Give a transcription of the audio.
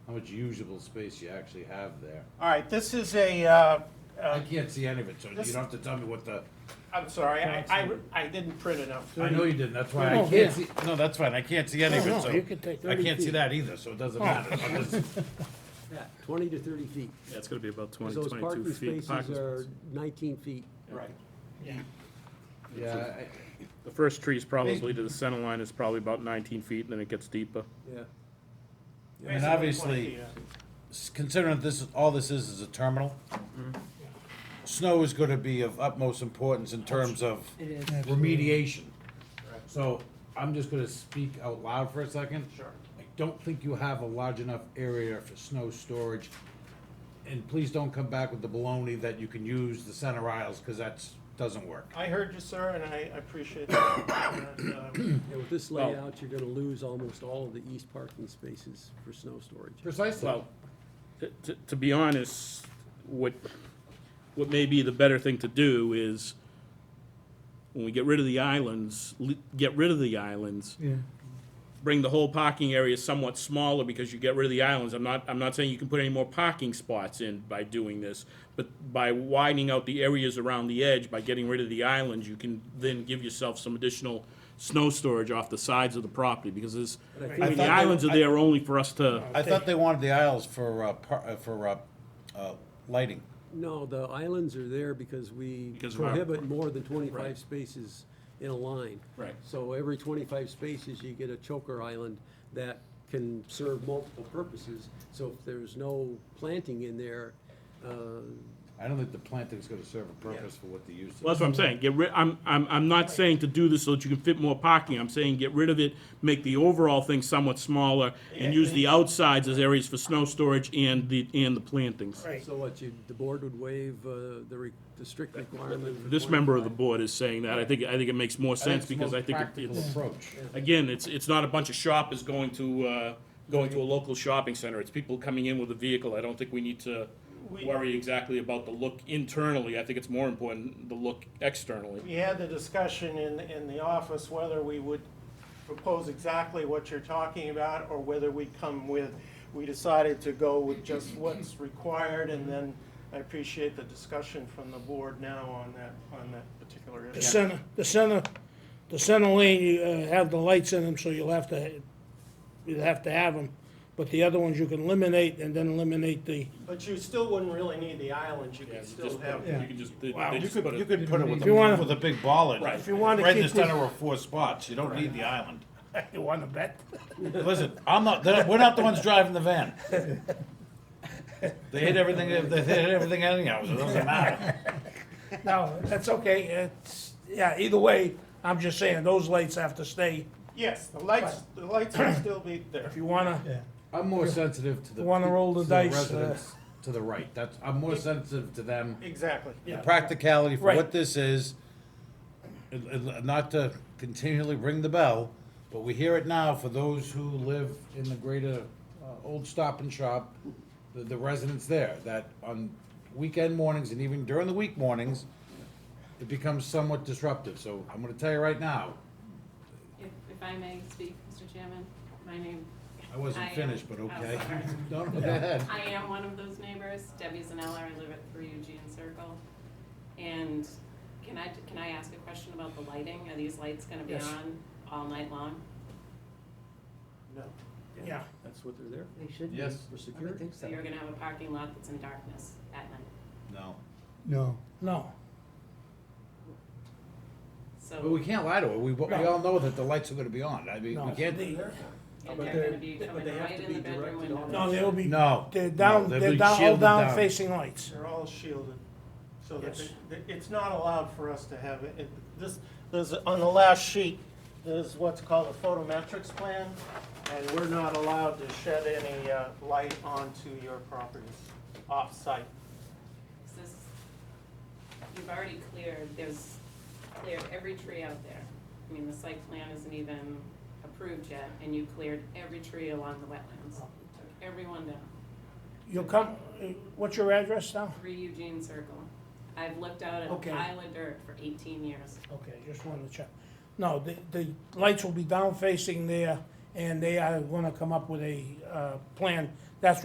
how much usable space you actually have there. All right, this is a, uh, I uh, can't see any of it, so you don't this- have to tell me what the, I'm sorry, I, I, I didn't print enough. I know you didn't, that's why I Oh, can't yeah. see, no, that's fine, I can't see any of No, it, no, so. you can take I 30 can't see feet. Oh. that either, so it doesn't matter. I'm just- Yeah, twenty to thirty feet. Yeah, it's gonna be about 20, Because those 22 parking feet. spaces Parking are spaces. nineteen feet. Right. Yeah, I- The first tree's probably to the center line is probably about nineteen feet, and then it gets deeper. Yeah. I mean, obviously, uh, s- considering this, is all this is, is a terminal, Mm-hmm. snow is gonna be of utmost importance in terms of remediation. Right. So, I'm just gonna speak out loud for a second. Sure. I don't think you have a large enough area for snow storage. And please don't come back with the baloney that you can use the center aisles, cause that's, doesn't work. I heard you, sir, and I I appreciate that. And, uh, Yeah, with this Well- layout, you're gonna lose almost all of the east parking spaces for snow storage. Precisely. Well, t- t- to be honest, what, what may be the better thing to do is, when we get rid of the islands, li- get rid of the islands. Bring the whole parking area somewhat smaller, because you get rid of the islands, I'm not, I'm not saying you can put any more parking spots in by doing this, but by widening out the areas around the edge, by getting rid of the islands, you can then give yourself some additional snow storage off the sides of the property, because there's, But I I think- I mean, the thought they- islands are there only for us to. I thought they wanted the aisles for, uh, par- uh, for, uh, uh, lighting. No, the islands are there because we Because of our- prohibit more than twenty-five Right. spaces in a line. Right. So every twenty-five spaces, you get a choker island that can serve multiple purposes. So if there's no planting in there, uh, I don't think the planting's gonna serve a purpose for what the use is. Well, that's what I'm saying, get rid, I'm, I'm, I'm not saying to do this so that you can fit more parking, I'm saying get rid of it, make the overall thing somewhat smaller, and use the outsides as areas for snow storage and the, and the plantings. Right. so what, you, the board would waive uh, the re- the strict requirement. for This member of the 25. board is saying that, I think, I think it makes more sense, because I think it- it's the most it's, practical approach. again, it's, it's not a bunch of shoppers going to, uh, going to a local shopping center, it's people coming in with a vehicle, I don't think we need to We- worry exactly about the look internally, I think it's more important, the look externally. We had the discussion in, in the office whether we would propose exactly what you're talking about or whether we come with, we decided to go with just what's required and then I appreciate the discussion from the board now on that, on that particular The issue. center, the center, the center lane, you uh, have the lights in them, so you'll have to, you'll have to have them. But the other ones you can eliminate and then eliminate the, But you still wouldn't really need the islands, you could still have. You can just, they- they You just put could, it- you could put it with If you a, wanna- with a big ball in it. Right. If you wanna Right in the keep this- center of four spots, you don't need the island. you wanna bet? Listen, I'm not, they're- we're not the ones driving the van. They hit everything, they hit everything anyhow, so it doesn't matter. No, that's okay, it's, yeah, either way, I'm just saying, those lights have to stay. Yes, the lights, the lights would still be there. If you wanna, I'm more sensitive to the. Wanna roll the to dice, uh, residents To the right, that's, I'm more sensitive to them, Exactly. the practicality for what Right. this is. and- and Not to continually ring the bell, but we hear it now for those who live in the greater, uh, Old Stop and Shop, the, the residents there, that on weekend mornings and even during the week mornings, it becomes somewhat disruptive, so I'm gonna tell you right now, If, if I may speak, Mr. Chairman, my name, I wasn't I am- finished, but I'm okay. sorry. No, no, go ahead. I am one of those neighbors, Debbie Zanella, I live at three Eugene Circle. And can I, can I ask a question about the lighting? Are these lights gonna be Yes. on all night long? No. yeah, That's what they're there They should be. Yes. for, I for would security. think so. So you're gonna have a parking lot that's in darkness at night? No. No. no, But we So, can't lie to her. We, we all know that the lights are gonna be on. I mean, we no. can't. The- and But they're they're- gonna be but coming they have right to in the be bedroom directed window. on- No, they'll be, No. they're No, down, they'll they're be down, all shielded down facing lights. They're all shielded, so that, Yes. they- they- it's not allowed for us to have, it. It- this, there's, on the last sheet, there's what's called a photometrics plan, and we're not allowed to shed any uh, light onto your properties off-site. Is this, you've already cleared, there's, cleared every tree out there. I mean, the site plan isn't even approved yet, and you cleared every tree along the wetlands. Took everyone down, You'll come, uh, what's your address now? three Eugene Circle. I've looked out at a Okay. pile of dirt for eighteen years. Okay, just wanted to check. No, the, the lights will be down facing there, and they are gonna come up with a, uh, plan. That's